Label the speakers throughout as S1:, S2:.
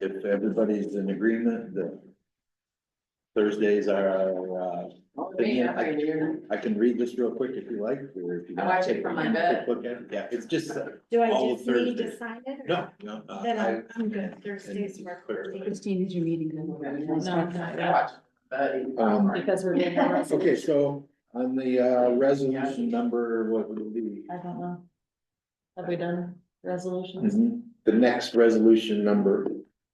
S1: if everybody's in agreement that Thursdays are, our, uh,
S2: Oh, yeah, I do.
S1: I can read this real quick if you like, or if you.
S2: Oh, I
S1: want
S2: watch
S1: to
S2: it
S1: take
S2: from
S1: a
S2: my bed.
S1: quick look at it. Yeah, it's just, uh,
S3: Do
S1: All
S3: I
S1: of
S3: just need
S1: Thursday.
S3: to sign it? or-
S1: no, no, uh,
S3: Then
S1: I,
S3: I'm, I'm good, Thursdays
S1: and
S3: work.
S1: clear.
S4: Christine, is your meeting
S2: I
S4: good?
S2: watch Buddy.
S1: Um,
S4: Because we're doing.
S1: okay, so on the, uh, resolution number, what would it be?
S4: I don't know. Have we done resolutions
S1: Mhm. The next resolution number,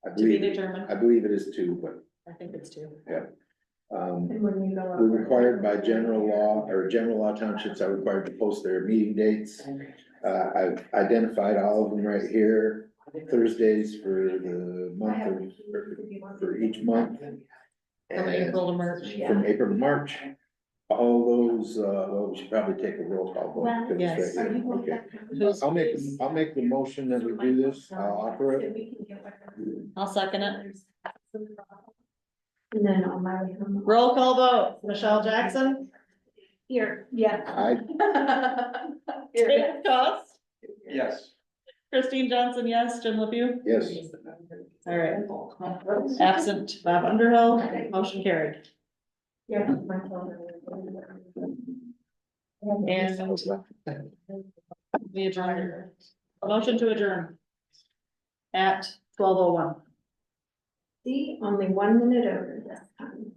S1: I
S4: Mm-hmm. to be
S1: believe,
S4: determined?
S1: I believe it is two, but,
S4: I think it's two.
S1: um,
S3: And when you go up-
S1: We're required by general law, or general law townships are required to post their meeting dates. Uh, I've identified all of them right here, Thursdays for the month of, for each month.
S4: From
S1: and
S4: April to March.
S1: From April to March. All those, uh, well, we should probably take a roll call vote. because
S4: Yes.
S1: they-
S3: Are you going
S1: okay.
S3: back?
S1: I'll make, I'll make the motion that we do this, I'll offer it.
S3: So we can get whatever.
S4: I'll second it.
S3: And then on my way home.
S4: Roll call vote, Michelle Jackson?
S3: Here, yeah.
S1: I,
S4: Dick Cost?
S5: Yes.
S4: Christine Johnson, yes. Jim LePew?
S1: yes,
S4: All right. Absent Bob Underhill, motion carried.
S3: Yeah. my phone.
S4: And we adjourn. Motion to adjourn. At twelve oh one.
S3: See, only one minute over this time.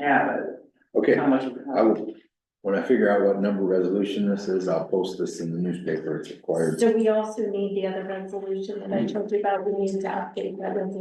S2: Yeah, but
S1: okay,
S2: how much?
S1: I will, when I figure out what number resolution this is, I'll post this in the newspaper, it's required.
S3: So we also need the other resolution that I told you about, we need to update that resolution.